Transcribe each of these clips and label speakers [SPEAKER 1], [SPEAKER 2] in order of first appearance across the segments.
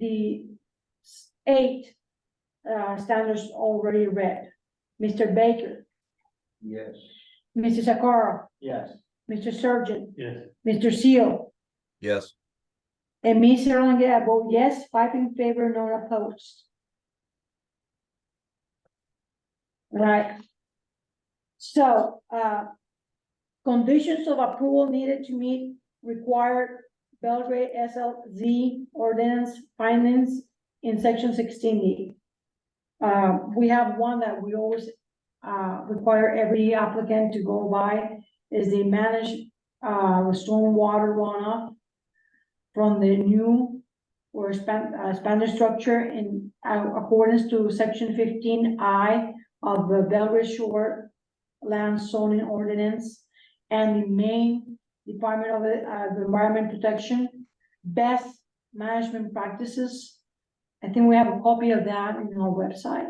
[SPEAKER 1] the s- eight uh, standards already read. Mr. Baker,
[SPEAKER 2] Yes.
[SPEAKER 1] Mrs. Sakara,
[SPEAKER 2] Yes.
[SPEAKER 1] Mr. Surgeon,
[SPEAKER 2] Yes.
[SPEAKER 1] Mr. Seal,
[SPEAKER 3] Yes,
[SPEAKER 1] and me, Sarah Longa, I vote yes, five in favor, none opposed. Right. So, uh, conditions of approval needed to meet required Belgrade SLZ ordinance findings in section sixteen D. Uh, we have one that we always, uh, require every applicant to go by, is the managed, uh, stormwater runoff from the new or span, uh, Spanish structure in uh, accordance to section fifteen I of the Belgrade Shore Land Zoning Ordinance and the Maine Department of uh, Environment Protection Best Management Practices. I think we have a copy of that in our website.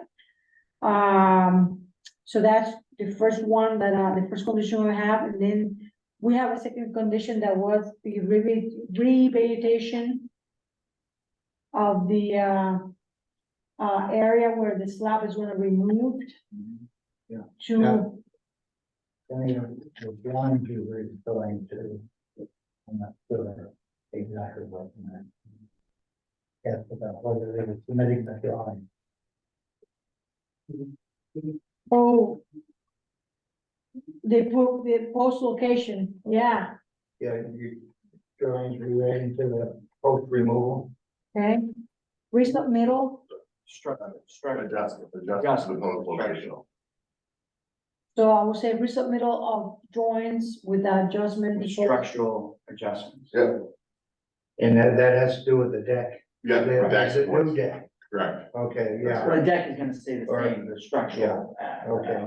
[SPEAKER 1] Um, so that's the first one that, uh, the first condition we have, and then we have a second condition that was the reve- revegetation of the, uh, uh, area where the slab is gonna be removed
[SPEAKER 2] Mm-hmm. Yeah.
[SPEAKER 1] to,
[SPEAKER 2] I mean, the blind viewer is going to. I'm not sure exactly what I meant. Yes, about whether they were submitting the drawing.
[SPEAKER 1] oh, they put the post location, yeah,
[SPEAKER 2] Yeah, you, drawings relating to the post removal.
[SPEAKER 1] okay. Recent middle,
[SPEAKER 2] Structure,
[SPEAKER 4] Adjust, adjust to the point of location.
[SPEAKER 1] so I would say recent middle of drawings with adjustment.
[SPEAKER 2] Structural adjustments.
[SPEAKER 4] Yeah.
[SPEAKER 2] And that, that has to do with the deck.
[SPEAKER 4] Yeah, that's
[SPEAKER 2] It's a new
[SPEAKER 4] correct.
[SPEAKER 2] deck. Okay, yeah.
[SPEAKER 5] Well, the deck is gonna stay the
[SPEAKER 2] Or-
[SPEAKER 5] same, the structural. uh,
[SPEAKER 2] Okay,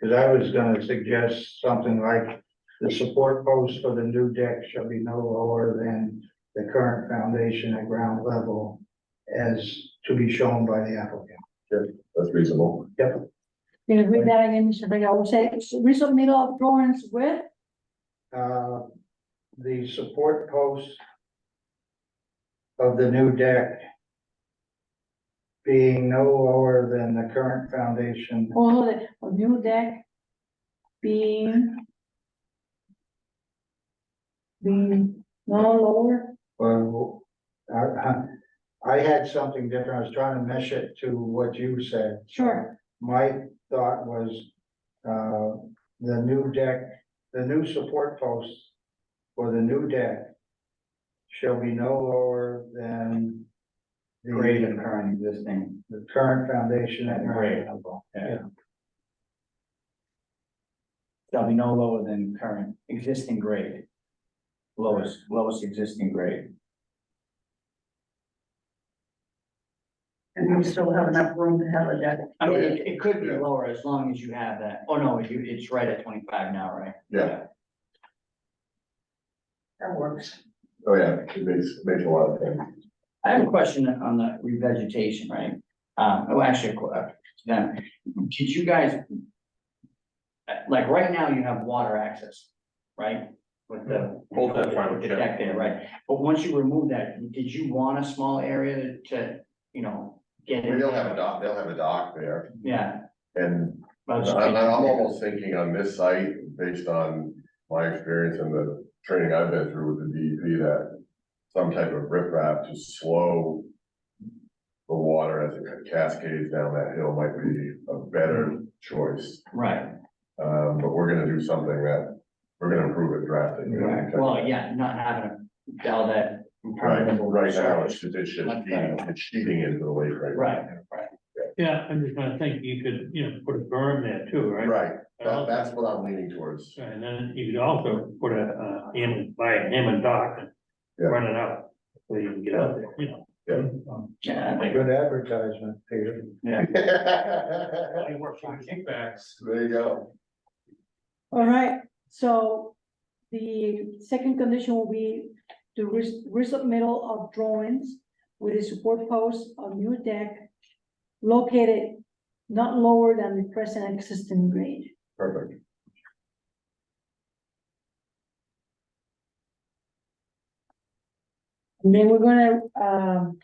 [SPEAKER 2] because I was gonna suggest something like, the support post for the new deck shall be no lower than the current foundation at ground level as to be shown by the applicant.
[SPEAKER 4] That's reasonable.
[SPEAKER 1] Can you read that again, Mr. Vega? I would say recent middle of drawings with
[SPEAKER 2] Uh, the support post of the new deck being no lower than the current foundation
[SPEAKER 1] all the, a new deck being being no lower
[SPEAKER 2] Well, I, I had something different. I was trying to mesh it to what you said.
[SPEAKER 1] Sure.
[SPEAKER 2] My thought was, uh, the new deck, the new support posts for the new deck shall be no lower than the
[SPEAKER 5] Grade of current existing.
[SPEAKER 2] the current foundation at ground
[SPEAKER 5] Grade.
[SPEAKER 2] level.
[SPEAKER 5] Shall be no lower than current existing grade. Lowest, lowest existing grade.
[SPEAKER 6] And we still have enough room to have a deck.
[SPEAKER 5] I mean, it, it could be
[SPEAKER 4] Yeah.
[SPEAKER 5] lower as long as you have that. Oh, no, you, it's right at twenty-five now, right?
[SPEAKER 4] Yeah.
[SPEAKER 6] That works.
[SPEAKER 4] Oh, yeah, it makes, makes a lot of sense.
[SPEAKER 5] I have a question on the revegetation, right? Um, oh, actually, a que- uh, then, did you guys? uh, Like, right now you have water access, right? With the.
[SPEAKER 4] Hold that front,
[SPEAKER 5] With the deck there, right? But once you remove that, did you want a small area to, you know, get in?
[SPEAKER 4] They'll have a dock, they'll have a dock there,
[SPEAKER 5] Yeah.
[SPEAKER 4] and
[SPEAKER 5] but I was just
[SPEAKER 4] I'm,
[SPEAKER 5] thinking-
[SPEAKER 4] I'm almost thinking on this site, based on my experience and the training I've been through with the DEP, that some type of riprap to slow the water as it cascades down that hill might be a better choice.
[SPEAKER 5] Right,
[SPEAKER 4] Um, but we're gonna do something that, we're gonna improve it drastically.
[SPEAKER 5] right. Well, yeah, not having a, all that.
[SPEAKER 4] Right, right now, it's,
[SPEAKER 5] surface.
[SPEAKER 4] it's just
[SPEAKER 5] Like
[SPEAKER 4] eating,
[SPEAKER 5] that.
[SPEAKER 4] it's cheating into the lake right
[SPEAKER 5] Right,
[SPEAKER 4] now.
[SPEAKER 5] right.
[SPEAKER 7] Yeah, I'm just gonna think you could, you know, put a berm there too, right?
[SPEAKER 4] Right, that,
[SPEAKER 7] Uh,
[SPEAKER 4] that's what I'm leaning towards.
[SPEAKER 7] And then you could also put a, uh, in, buy a hammer dock and
[SPEAKER 4] Yeah.
[SPEAKER 7] run it out, so you can get out there, you know.
[SPEAKER 4] Yeah.
[SPEAKER 7] Um,
[SPEAKER 5] Yeah, I think,
[SPEAKER 2] Good advertisement, Peter.
[SPEAKER 5] yeah.
[SPEAKER 4] There
[SPEAKER 7] It works on kickbacks.
[SPEAKER 4] you go.
[SPEAKER 1] All right, so the second condition will be the res- resubmittal of drawings with a support post of new deck located not lower than the present existing grade.
[SPEAKER 4] Perfect.
[SPEAKER 1] And then we're gonna, um,